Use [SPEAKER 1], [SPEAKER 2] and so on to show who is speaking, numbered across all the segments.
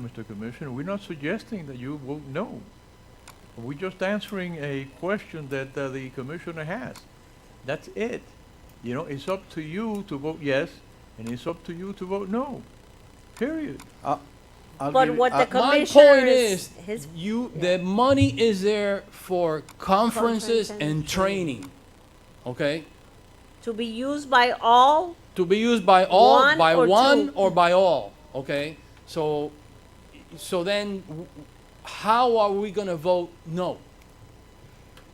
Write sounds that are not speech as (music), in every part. [SPEAKER 1] Mr. Commissioner. We're not suggesting that you vote no. We're just answering a question that uh, the commissioner has. That's it. You know, it's up to you to vote yes, and it's up to you to vote no. Period.
[SPEAKER 2] I'll
[SPEAKER 3] But
[SPEAKER 2] give-
[SPEAKER 3] what the
[SPEAKER 2] I-
[SPEAKER 3] commissioner
[SPEAKER 4] uh, My point is,
[SPEAKER 3] his
[SPEAKER 4] you
[SPEAKER 3] yeah.
[SPEAKER 4] the money is there for conferences
[SPEAKER 3] Conferences and
[SPEAKER 4] and training, okay,
[SPEAKER 3] to be used by all.
[SPEAKER 4] to be used by all,
[SPEAKER 3] One
[SPEAKER 4] by
[SPEAKER 3] or
[SPEAKER 4] one,
[SPEAKER 3] two.
[SPEAKER 4] or by all, okay. So, so then, w- how are we gonna vote no?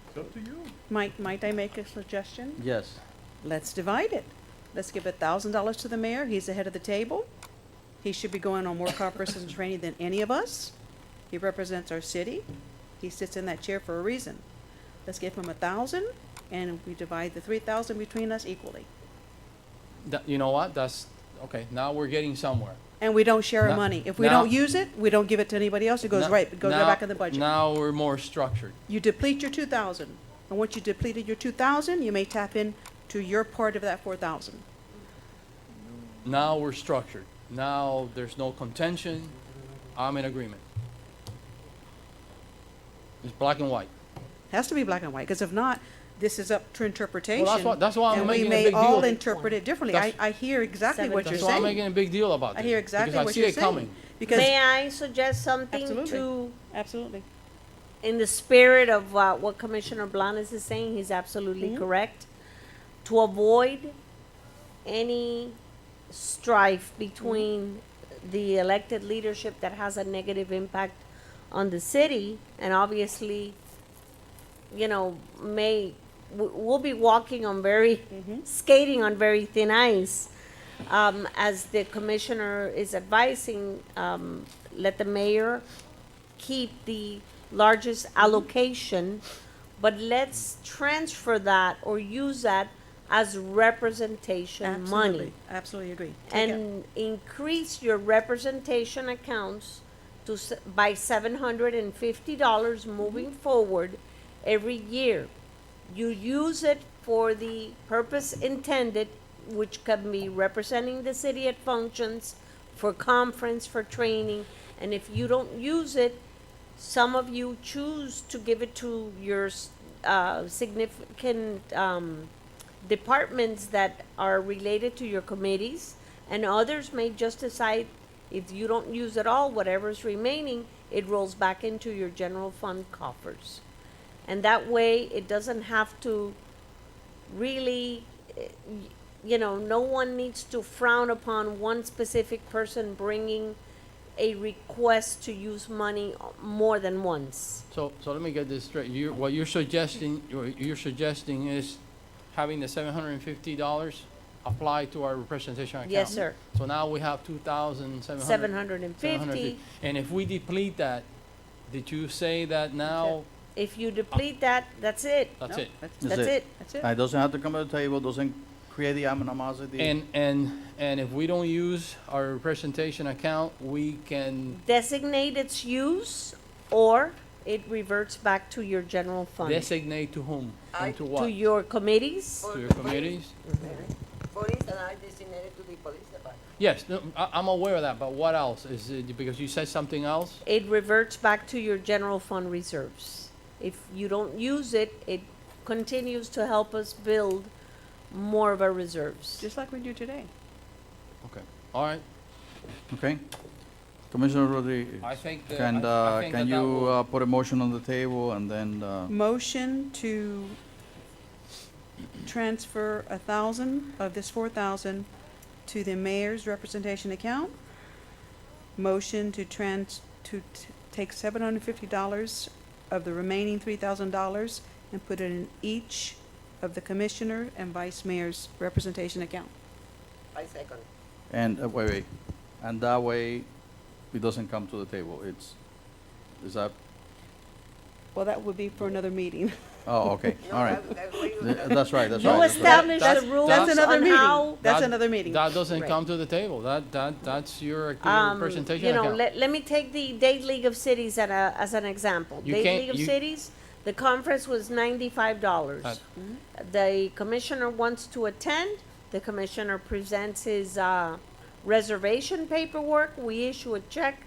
[SPEAKER 1] It's up to you.
[SPEAKER 5] Might, might I make a suggestion?
[SPEAKER 2] Yes.
[SPEAKER 5] Let's divide it. Let's give a thousand dollars to the mayor, he's the head of the table. He should be going on more conferences and training than any of us. He represents our city, he sits in that chair for a reason. Let's give him a thousand, and we divide the three thousand between us equally.
[SPEAKER 4] That, you know what? That's okay. Now we're getting somewhere.
[SPEAKER 5] And we don't share
[SPEAKER 4] No-
[SPEAKER 5] our money. If we
[SPEAKER 4] no.
[SPEAKER 5] don't use it, we don't give it to anybody else, it goes
[SPEAKER 4] Now-
[SPEAKER 5] right, it goes right
[SPEAKER 4] now-
[SPEAKER 5] back in the budget.
[SPEAKER 4] Now we're more structured.
[SPEAKER 5] You deplete your two thousand, and once you depleted your two thousand, you may tap in to your part of that four thousand.
[SPEAKER 4] Now we're structured. Now there's no contention. I'm in agreement. It's black and white.
[SPEAKER 5] Has to be black and white, because if not, this is up to interpretation.
[SPEAKER 4] what- that's why I'm making a big
[SPEAKER 5] And we may all
[SPEAKER 4] deal.
[SPEAKER 5] interpret it differently. I,
[SPEAKER 4] That's-
[SPEAKER 5] I hear exactly what you're
[SPEAKER 4] That's why I'm
[SPEAKER 5] saying.
[SPEAKER 4] making a big deal about
[SPEAKER 5] I
[SPEAKER 4] this.
[SPEAKER 5] hear exactly
[SPEAKER 4] because
[SPEAKER 5] what
[SPEAKER 4] I see
[SPEAKER 5] you're
[SPEAKER 4] it coming.
[SPEAKER 5] saying. Because,
[SPEAKER 3] May I suggest something
[SPEAKER 5] Absolutely.
[SPEAKER 3] to,
[SPEAKER 5] absolutely.
[SPEAKER 3] in the spirit of uh, what Commissioner Blanes is saying, he's absolutely correct. To avoid any strife between the elected leadership that has a negative impact on the city, and obviously, you know, may w- we'll be walking on very skating on very thin ice. Um, as the commissioner is advising, um, let the mayor keep the largest allocation, but let's transfer that or use that as representation money
[SPEAKER 5] Absolutely. Absolutely agree. Take it.
[SPEAKER 3] and increase your representation accounts to, s- by seven hundred and fifty dollars moving forward every year. You use it for the purpose intended, which can be representing the city at functions, for conference, for training, and if you don't use it, some of you choose to give it to your s- uh, significant um, departments that are related to your committees, and others may just decide if you don't use it all, whatever's remaining, it rolls back into your general fund coffers. And that way, it doesn't have to really, eh, y- you know, no one needs to frown upon one specific person bringing a request to use money uh, more than once.
[SPEAKER 4] So, so let me get this straight. You, what you're suggesting, what you're suggesting is having the seven hundred and fifty dollars applied to our representation account.
[SPEAKER 3] Yes, sir.
[SPEAKER 4] So now we have two thousand seven hundred.
[SPEAKER 3] Seven hundred and
[SPEAKER 4] 750.
[SPEAKER 3] fifty.
[SPEAKER 4] And if we deplete that, did you say that now,
[SPEAKER 3] If you deplete that, that's it.
[SPEAKER 4] that's
[SPEAKER 5] No,
[SPEAKER 4] it?
[SPEAKER 5] That's
[SPEAKER 2] That's
[SPEAKER 3] That's
[SPEAKER 2] it.
[SPEAKER 3] it.
[SPEAKER 5] that's it.
[SPEAKER 2] And it doesn't have to come to the table, doesn't create the animosity.
[SPEAKER 4] And, and, and if we don't use our representation account, we can
[SPEAKER 3] Designate its use or it reverts back to your general fund.
[SPEAKER 4] designate to whom
[SPEAKER 6] I-
[SPEAKER 4] and to
[SPEAKER 3] To
[SPEAKER 4] what?
[SPEAKER 3] your committees.
[SPEAKER 4] To your committees?
[SPEAKER 6] Police and I designated to the police department.
[SPEAKER 4] Yes, no, I, I'm aware of that, but what else? Is it, because you said something else?
[SPEAKER 3] it reverts back to your general fund reserves. If you don't use it, it continues to help us build more of our reserves.
[SPEAKER 5] Just like we do today.
[SPEAKER 4] Okay, all right.
[SPEAKER 2] Okay? Commissioner Rodriguez,
[SPEAKER 4] I think that.
[SPEAKER 2] can,
[SPEAKER 4] I- I
[SPEAKER 2] uh,
[SPEAKER 4] think
[SPEAKER 2] can
[SPEAKER 4] that that
[SPEAKER 2] you
[SPEAKER 4] will-
[SPEAKER 2] uh, put a motion on the table and then, uh,
[SPEAKER 5] Motion to transfer a thousand of this four thousand to the mayor's representation account. Motion to trans, to t- take seven hundred and fifty dollars of the remaining three thousand dollars and put it in each of the commissioner and vice mayor's representation account.
[SPEAKER 6] I second.
[SPEAKER 2] and, uh, wait, wait. And that way, it doesn't come to the table. It's, is that,
[SPEAKER 5] Well, that would be for another meeting. (laughs)
[SPEAKER 2] oh,
[SPEAKER 6] (laughs)
[SPEAKER 2] okay,
[SPEAKER 6] No,
[SPEAKER 2] all right.
[SPEAKER 6] I- I agree with
[SPEAKER 2] Th-
[SPEAKER 6] that.
[SPEAKER 2] That's right, that's
[SPEAKER 4] You
[SPEAKER 2] right.
[SPEAKER 3] You
[SPEAKER 2] that's right.
[SPEAKER 3] establish
[SPEAKER 4] That's-
[SPEAKER 3] the rules
[SPEAKER 4] that's
[SPEAKER 5] another
[SPEAKER 3] on
[SPEAKER 5] meeting.
[SPEAKER 3] how,
[SPEAKER 5] That's
[SPEAKER 4] That-
[SPEAKER 5] another meeting.
[SPEAKER 4] That doesn't
[SPEAKER 5] Right.
[SPEAKER 4] come to the table. That, that, that's your activity
[SPEAKER 3] um,
[SPEAKER 4] representation
[SPEAKER 3] you know,
[SPEAKER 4] account.
[SPEAKER 3] let, let me take the Date League of Cities at a, as an example.
[SPEAKER 4] You
[SPEAKER 3] Date
[SPEAKER 4] can't-
[SPEAKER 3] League of
[SPEAKER 4] you-
[SPEAKER 3] Cities, the conference was ninety-five dollars.
[SPEAKER 4] Uh,
[SPEAKER 3] The commissioner wants to attend, the commissioner presents his, uh, reservation paperwork, we issue a check